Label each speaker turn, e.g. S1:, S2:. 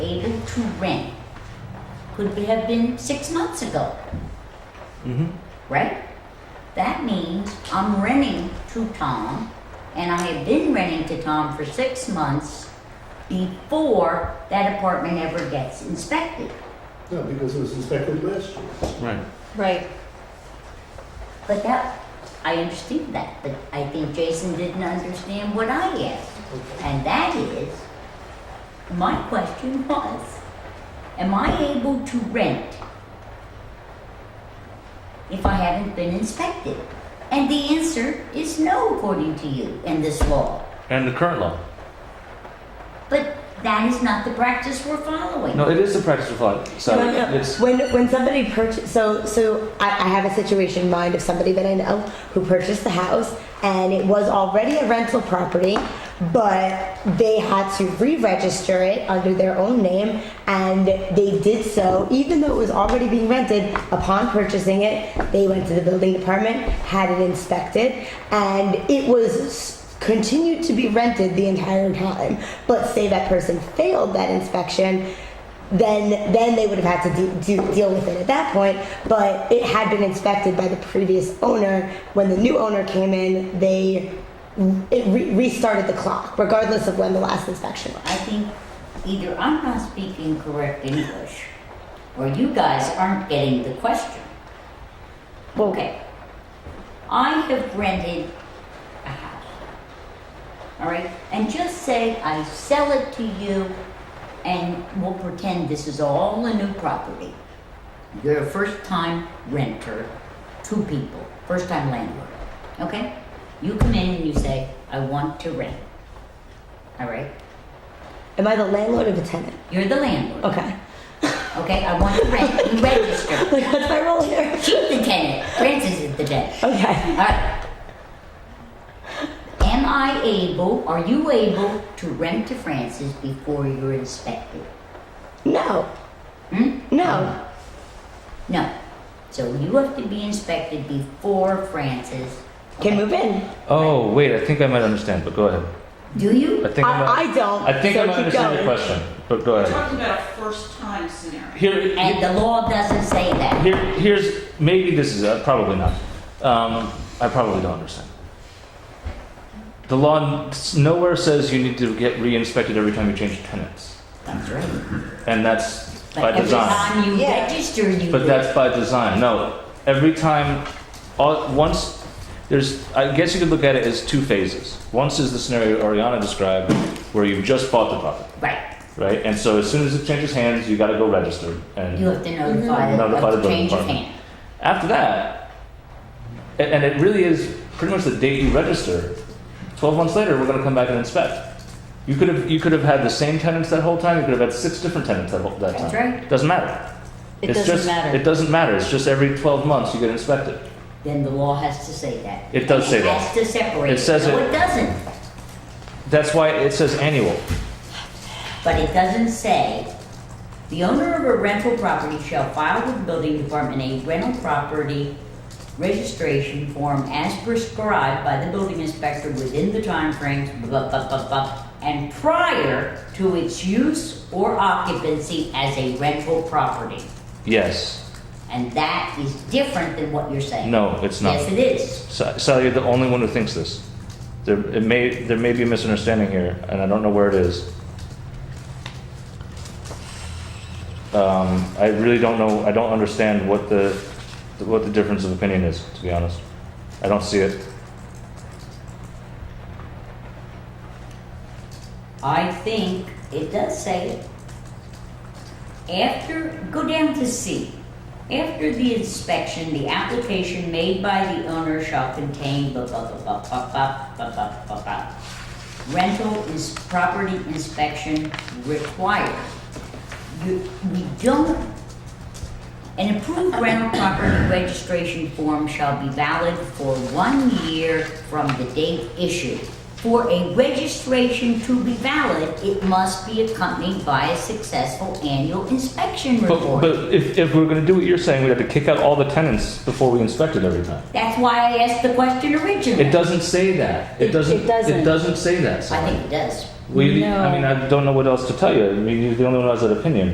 S1: to rent could be- have been six months ago,
S2: Mm-hmm.
S1: right? That means I'm renting to Tom, and I have been renting to Tom for six months before that apartment ever gets inspected.
S3: No, because it was inspected last year.
S2: Right.
S4: Right.
S1: But that, I understand that, but I think Jason didn't understand what I asked.
S3: Okay.
S1: And that is, my question was, am I able to rent if I haven't been inspected? And the answer is no, according to you and this law.
S2: And the current law.
S1: But that is not the practice we're following.
S2: No, it is the practice of law. So
S4: No, no.
S2: it's
S4: When when somebody purchased, so so I, I have a situation in mind of somebody that I know who purchased the house and it was already a rental property, but they had to re-register it under their own name, and they did so even though it was already being rented. Upon purchasing it, they went to the building department, had it inspected, and it was s- continued to be rented the entire time. But say that person failed that inspection then then they would have had to de- do, deal with it at that point. But it had been inspected by the previous owner. When the new owner came in, they it re- restarted the clock, regardless of when the last inspection was.
S1: I think either I'm not speaking correct English, or you guys aren't getting the question. Okay. I have rented a house. All right? And just say I sell it to you and we'll pretend this is all a new property. You're a first time renter, two people, first time landlord. Okay? You come in and you say, I want to rent. All right?
S4: Am I the landlord or the tenant?
S1: You're the landlord.
S4: Okay,
S1: Okay, I want to rent. You register.
S4: like that's my role here.
S1: The tenant. Francis is the tenant.
S4: Okay,
S1: All right. Am I able, are you able to rent to Francis before you're inspected?
S4: no,
S1: Hmm?
S4: no,
S1: No. So you have to be inspected before Francis.
S4: can move in.
S2: Oh wait, I think I might understand, but go ahead.
S1: Do you?
S2: I think I, might,
S4: I, I don't.
S2: I think
S4: so
S2: I might
S4: keep
S2: understand
S4: going.
S2: your question, but go
S5: We're
S2: ahead.
S5: talking about a first-time scenario.
S2: Here,
S1: And the law doesn't say that.
S2: here here's maybe this is uh, probably not. Um, I probably don't understand. The law n- nowhere says you need to get re-inspected every time you change tenants,
S1: That's right.
S2: and that's by
S1: But every
S2: design.
S1: time you
S4: Yeah.
S1: register, you.
S2: But
S1: do.
S2: that's by design. No, every time, all, once there's, I guess you could look at it as two phases. Once is the scenario Ariana described, where you've just bought the property,
S1: Right.
S2: right? And so as soon as it changes hands, you got to go register. And
S1: You have to notify them
S2: Notify the
S1: of the
S2: building
S1: change of
S2: department.
S1: hand.
S2: after that, a- and it really is pretty much the date you register. Twelve months later, we're going to come back and inspect. You could have you could have had the same tenants that whole time. You could have had six different tenants that whole that
S1: That's
S2: time.
S1: right.
S2: Doesn't matter.
S4: It
S2: it's
S4: doesn't
S2: just,
S4: matter.
S2: It doesn't matter. It's just every twelve months you get inspected.
S1: then the law has to say that.
S2: It does
S1: And
S2: say that.
S1: It has to separate.
S2: It says
S1: No,
S2: it-
S1: it doesn't,
S2: That's why it says annual.
S1: but it doesn't say, the owner of a rental property shall file with the building department a rental property registration form as prescribed by the building inspector within the timeframes, blah, blah, blah, blah, and prior to its use or occupancy as a rental property.
S2: Yes.
S1: And that is different than what you're saying.
S2: No, it's not.
S1: Yes, it is.
S2: Sa- Sally, you're the only one who thinks this. There, it may, there may be a misunderstanding here, and I don't know where it is. Um, I really don't know. I don't understand what the, what the difference of opinion is. To be honest, I don't see it.
S1: I think it does say it. After, go down to C. After the inspection, the application made by the owner shall contain blah, blah, blah, blah, blah, blah, blah, blah, blah, blah. Rental is property inspection required. You, we don't an approved rental property registration form shall be valid for one year from the date issued. For a registration to be valid, it must be accompanied by a successful annual inspection
S2: But,
S1: report.
S2: but if, if we're going to do what you're saying, we have to kick out all the tenants before we inspect it every time.
S1: That's why I asked the question
S2: It
S1: originally.
S2: doesn't say that. It
S4: It-
S2: doesn't.
S4: it doesn't.
S2: It doesn't say that.
S1: I
S2: Sally.
S1: think it does.
S2: We, I
S4: No.
S2: mean, I don't know what else to tell you. I mean, you're the only one who has that opinion.